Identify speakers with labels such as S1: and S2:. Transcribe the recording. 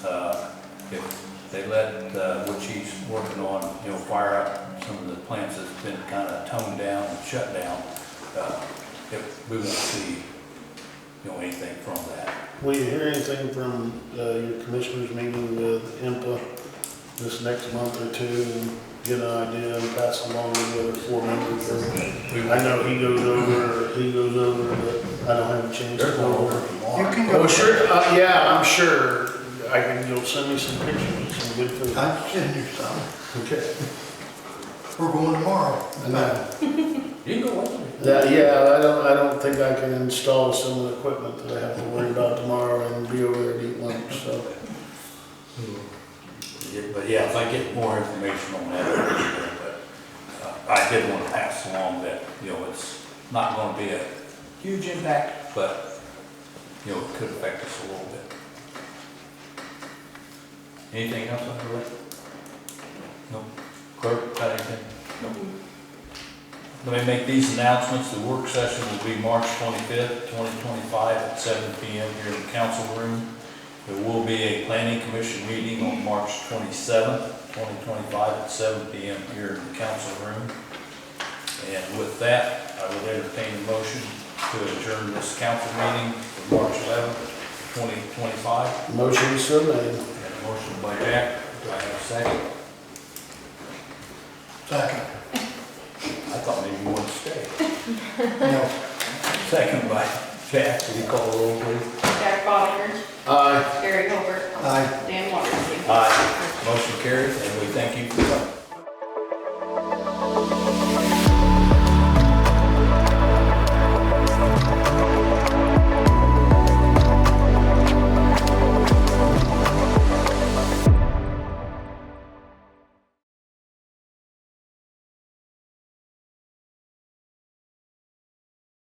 S1: Uh, if they let, uh, which he's working on, you know, fire up some of the plants that's been kind of toned down and shut down, uh, if we won't see, you know, anything from that.
S2: Will you hear anything from uh, your commissioners meeting with IMPA this next month or two? and Get an idea and pass along to the other four members?
S1: We
S2: I know he goes over, he goes over, but I don't have a chance to
S1: There's
S2: go
S1: one
S2: over.
S1: over tomorrow.
S3: can
S2: Oh, sure, uh, yeah, I'm sure. I can, you'll send me some pictures, some good food.
S3: I'm sending you some.
S2: Okay.
S3: We're going tomorrow.
S2: That,
S1: You can go with me.
S2: yeah, I don't, I don't think I can install some of the equipment that I have to worry about tomorrow and be over there to eat lunch, so.
S1: Yeah, But yeah, if I get more information on that, I'll be there, but uh, I did want to pass along that, you know, it's not going to be a huge impact, but, you know, it could affect us a little bit. Anything else on the list? No? Clerk, got anything? Let me make these announcements. The work session will be March 25th, 2025 at seven PM here in the council room. There will be a planning commission meeting on March 27th, 2025 at seven PM here in the council room. And with that, I would entertain a motion to adjourn this council meeting for March 11th, 2025.
S2: Motion so made.
S1: And a motion by Jack. Do I have a second?
S3: Second.
S1: I thought maybe you wanted to stay.
S3: No.
S1: Second by Jack. Will you call the roll, please?
S4: Jack Botter,
S2: Aye.
S4: Gary Holbert.
S3: Aye.
S4: Dan Wondersen.
S1: Aye. Motion carries, and we thank you for coming.